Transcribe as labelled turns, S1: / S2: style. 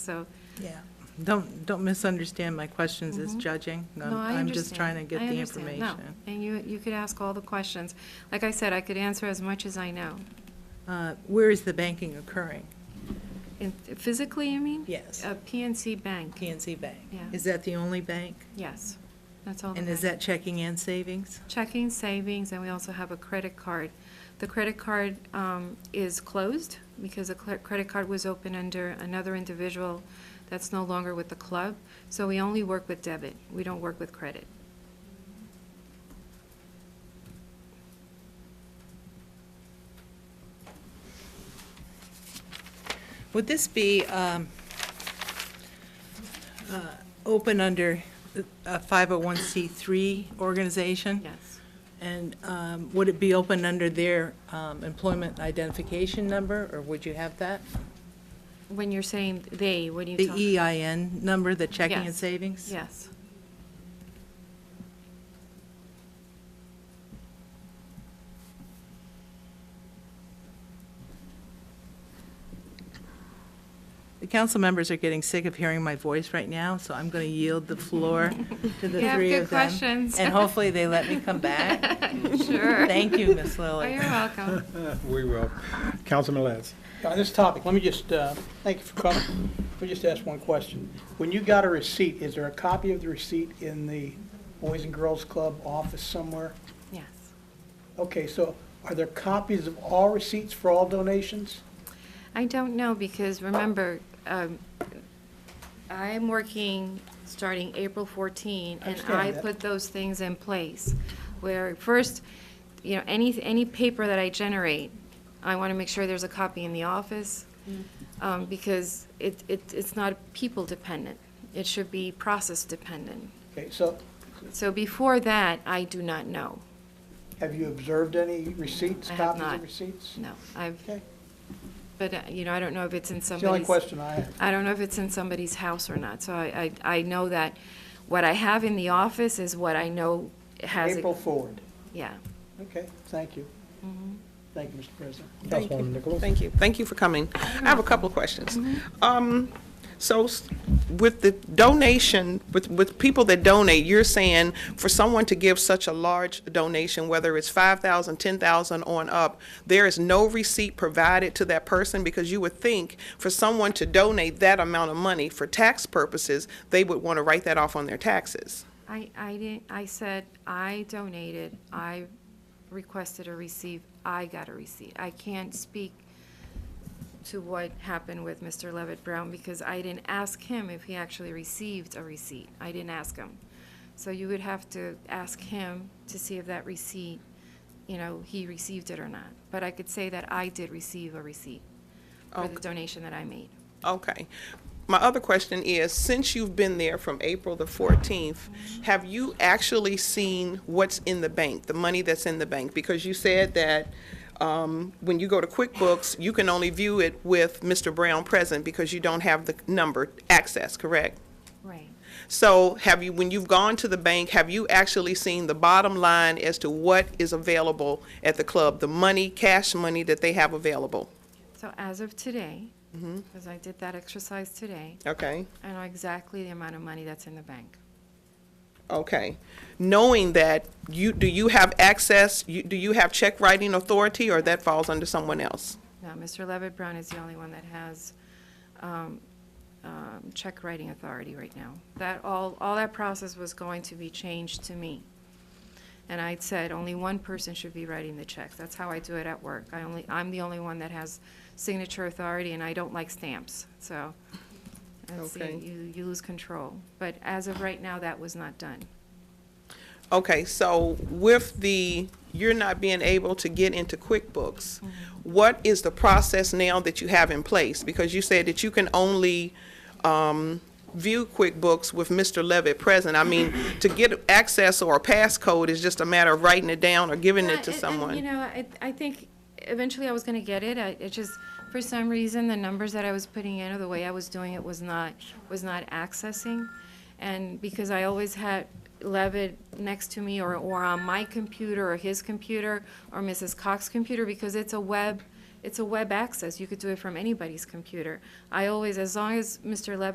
S1: So,
S2: Yeah, don't, don't misunderstand my questions as judging.
S1: Mm-hmm. no,
S2: I'm-
S1: I understand.
S2: I'm just trying to get
S1: I
S2: the
S1: understand. No,
S2: information.
S1: And you, you could ask all the questions. Like I said, I could answer as much as I know.
S2: Uh, Where is the banking occurring?
S1: In- Physically, you mean?
S2: Yes.
S1: A PNC Bank,
S2: PNC Bank.
S1: Yeah.
S2: Is that the only bank?
S1: yes. That's all. the
S2: And is
S1: bank.
S2: that checking and savings?
S1: Checking, savings, and we also have a credit card. The credit card um, is closed because the cre- credit card was open under another individual that's no longer with the club. So we only work with debit. We don't work with credit.
S2: Would this be um, uh, open under a 501c3 organization?
S1: Yes.
S2: And um, would it be open under their um, employment identification number, or would you have that?
S1: When you're saying they, what do you
S2: The E.
S1: talk?
S2: EIN number, the checking and
S1: Yes.
S2: savings?
S1: Yes.
S2: The council members are getting sick of hearing my voice right now, so I'm going to yield the floor to the
S1: You have
S2: three
S1: good
S2: of them.
S1: questions.
S2: And hopefully they let me come back.
S1: Sure.
S2: Thank you, Ms.
S1: Oh,
S2: Lilly.
S1: you're welcome.
S3: We will. Councilman Les.
S4: On this topic, let me just, uh, thank you for coming. Let me just ask one question. When you got a receipt, is there a copy of the receipt in the Boys and Girls Club office somewhere?
S1: Yes.
S4: Okay, so are there copies of all receipts for all donations?
S1: I don't know, because remember, um, I'm working starting April 14,
S4: I
S1: and
S4: understand
S1: I
S4: that.
S1: put those things in place, where first, you know, any, any paper that I generate, I want to make sure there's a copy in the office, um, because it, it, it's not people-dependent. It should be process-dependent.
S4: Okay, so
S1: So before that, I do not know,
S4: have you observed any receipts,
S1: I have
S4: copies
S1: not.
S4: of receipts?
S1: no. I've,
S4: Okay,
S1: but, uh, you know, I don't know if it's in
S4: it's the only
S1: somebody's.
S4: question I have.
S1: I don't know if it's in somebody's house or not, so I, I, I know that what I have in the office is what I know has. a-
S4: April forward.
S1: Yeah.
S4: Okay, thank you.
S1: Mm-hmm.
S4: Thank you, Mr. President.
S3: Councilwoman Nichols.
S5: Thank you. Thank you for coming. I have a couple of questions. Um, So s- with the donation, with, with people that donate, you're saying for someone to give such a large donation, whether it's 5,000, 10,000 on up, there is no receipt provided to that person? Because you would think for someone to donate that amount of money for tax purposes, they would want to write that off on their taxes.
S1: I, I didn't, I said, I donated, I requested a receipt, I got a receipt. I can't speak to what happened with Mr. Levitt Brown because I didn't ask him if he actually received a receipt. I didn't ask him. So you would have to ask him to see if that receipt, you know, he received it or not. But I could say that I did receive a receipt for the donation that I made.
S5: Okay. My other question is, since you've been there from April the 14th, have you actually seen what's in the bank, the money that's in the bank? Because you said that um, when you go to QuickBooks, you can only view it with Mr. Brown present because you don't have the number access, correct?
S1: Right.
S5: So have you, when you've gone to the bank, have you actually seen the bottom line as to what is available at the club, the money, cash money that they have available?
S1: So as of today, because I did that exercise today,
S5: Okay?
S1: I know exactly the amount of money that's in the bank.
S5: Okay. Knowing that, you, do you have access, you, do you have check writing authority, or that falls under someone else?
S1: Now, Mr. Levitt Brown is the only one that has um, um, check writing authority right now. That, all, all that process was going to be changed to me. And I said, only one person should be writing the checks. That's how I do it at work. I only, I'm the only one that has signature authority, and I don't like stamps, so. that's the-
S5: Okay.
S1: You, you lose control. But as of right now, that was not done.
S5: Okay, so with the, you're not being able to get into QuickBooks,
S1: Mm-hmm.
S5: what is the process now that you have in place? Because you said that you can only um, view QuickBooks with Mr. Levitt present. I mean, to get access or a passcode is just a matter of writing it down or giving
S1: Yeah,
S5: it to
S1: and- and,
S5: someone.
S1: you know, I, I think eventually I was gonna get it, I, it just, for some reason, the numbers that I was putting in or the way I was doing it was not, was not accessing. And because I always had Levitt next to me or, or on my computer or his computer or Mrs. Cox's computer, because it's a web, it's a web access. You could do it from anybody's computer. I always, as long as Mr. Levin